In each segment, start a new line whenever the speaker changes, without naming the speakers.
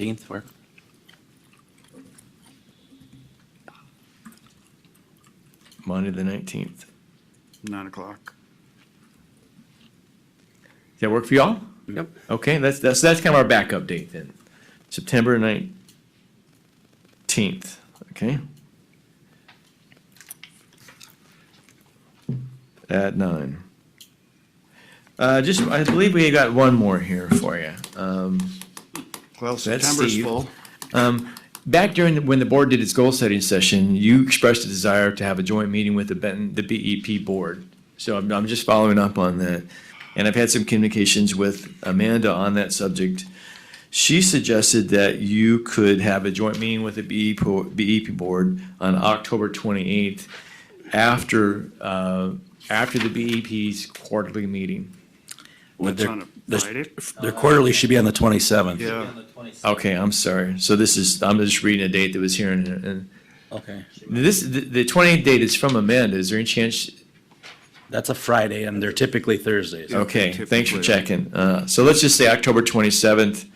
Fifteenth work?
Monday the nineteenth.
Nine o'clock.
Does that work for y'all?
Yep.
Okay, that's, that's, that's kind of our backup date then. September nineteenth, okay? At nine. Uh, just, I believe we got one more here for you.
Well,
That's
September's
Steve.
full.
Back during, the- when the board did its goal setting session, you expressed a desire to have a joint meeting with the Benton, the BEP board. So I'm, I'm just following up on that. And I've had some communications with Amanda on that subject. She suggested that you could have a joint meeting with the E BEP, po- BEP board on October twenty-eighth after, uh, after the BEP's quarterly meeting.
Would
That's
their-
on a
their-
Friday?
Their quarterly should be on the twenty-seventh.
Yeah,
Okay, I'm sorry. So this is, I'm just reading a date that was here and, and
Okay,
this, the, the twenty-eighth date is from Amanda. Is there any chance
that's a Friday and they're typically Thursdays.
Okay, thanks for
typically.
checking. Uh, so let's just say October twenty-seventh.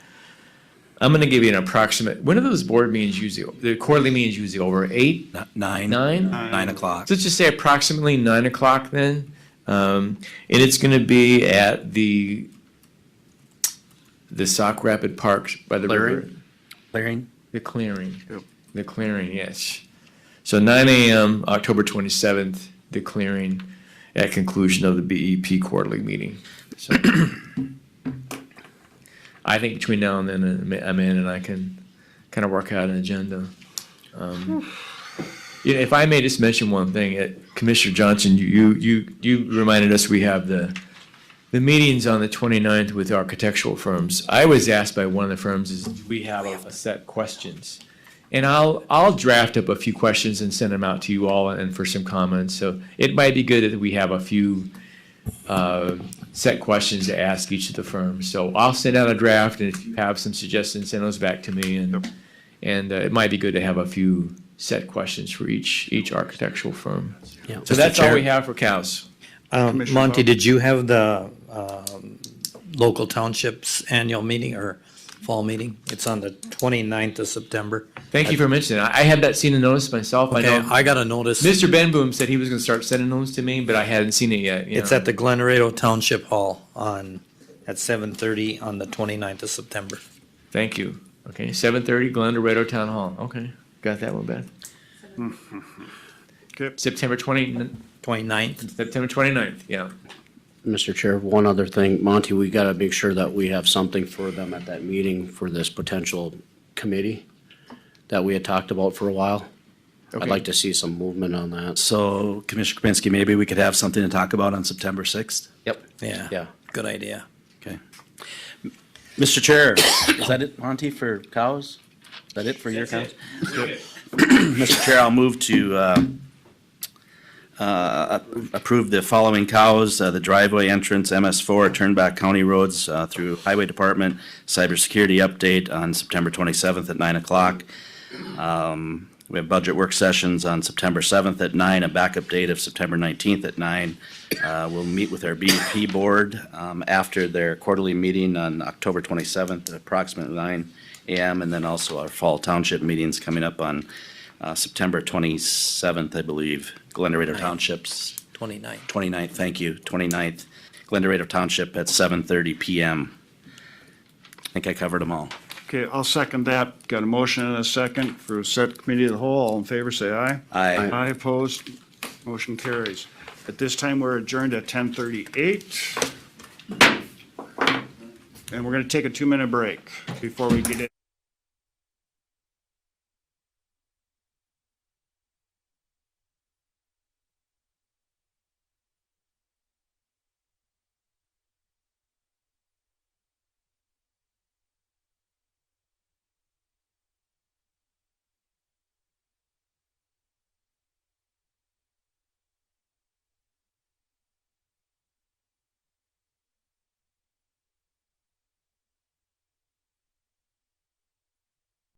I'm gonna give you an approximate, when are those board meetings usually, the quarterly meetings usually over eight,
N- Nine.
nine?
Nine o'clock.
So let's just say approximately nine o'clock then. Um, and it's gonna be at the, the Sock Rapid Parks by the river.
Clearing? Clearing?
The clearing.
Yep.
The clearing, yes. So nine AM, October twenty-seventh, the clearing at conclusion of the BEP quarterly meeting. So I think between now and then, uh, Ma- Amanda and I can kind of work out an agenda. Um, You know, if I may just mention one thing, uh, Commissioner Johnson, you, you, you- you reminded us we have the, the meeting's on the 29th with architectural firms. I was asked by one of the firms is, do we have a set of questions? And I'll, I'll draft up a few questions and send them out to you all and for some comments. So it might be good that we have a few uh, set questions to ask each of the firms. So I'll send out a draft and if you have some suggestions, send those back to me. And, and uh, it might be good to have a few set questions for each, each architectural firm.
Yeah.
So that's all we have for cows.
Um,
Commissioner
Monty,
Bob?
did you have the um, local townships annual meeting or fall meeting? It's on the 29th of September.
Thank you for mentioning it. I I had that seen and noticed myself. I
Okay,
know
I got a notice.
Mr. Ben Boom said he was going to start sending those to me, but I hadn't seen it yet. you
It's
know.
at the Glen Laredo Township Hall on, at 7:30 on the 29th of September.
Thank you. Okay, seven thirty, Glen Dorado Town Hall. Okay, got that one, Ben.
Okay.
September twenty,
29th?
September 29th. yeah.
Mr. Chair, one other thing, Monty, we gotta make sure that we have something for them at that meeting for this potential committee that we had talked about for a while. I'd
Okay.
like to see some movement on that.
So Commissioner Kapinski, maybe we could have something to talk about on September sixth?
Yep.
Yeah.
Yeah.
Good idea.
Okay. Mr. Chair, is that it, Monty, for cows? Is that it for your cows? Mr. Chair, I'll move to uh, uh, approve the following cows, uh, the driveway entrance, MS4, Turnback County Roads uh, through Highway Department, cybersecurity update on September 27th at 9 o'clock. Um, We have budget work sessions on September 7th at 9, a backup date of September 19th at 9. Uh, We'll meet with our BEP board um, after their quarterly meeting on October 27th at approximately 9 AM. And then also our fall township meetings coming up on uh, September 27th, I believe, Glen Dorado Township's
29th.
29th, thank you, 29th, Glen Dorado Township at 7:30 PM. I think I covered them all.
Okay, I'll second that. Got a motion and a second for set committee of the whole. All in favor, say aye.
Aye.
Aye opposed, motion carries. At this time, we're adjourned at ten thirty-eight. And we're gonna take a two-minute break before we get in.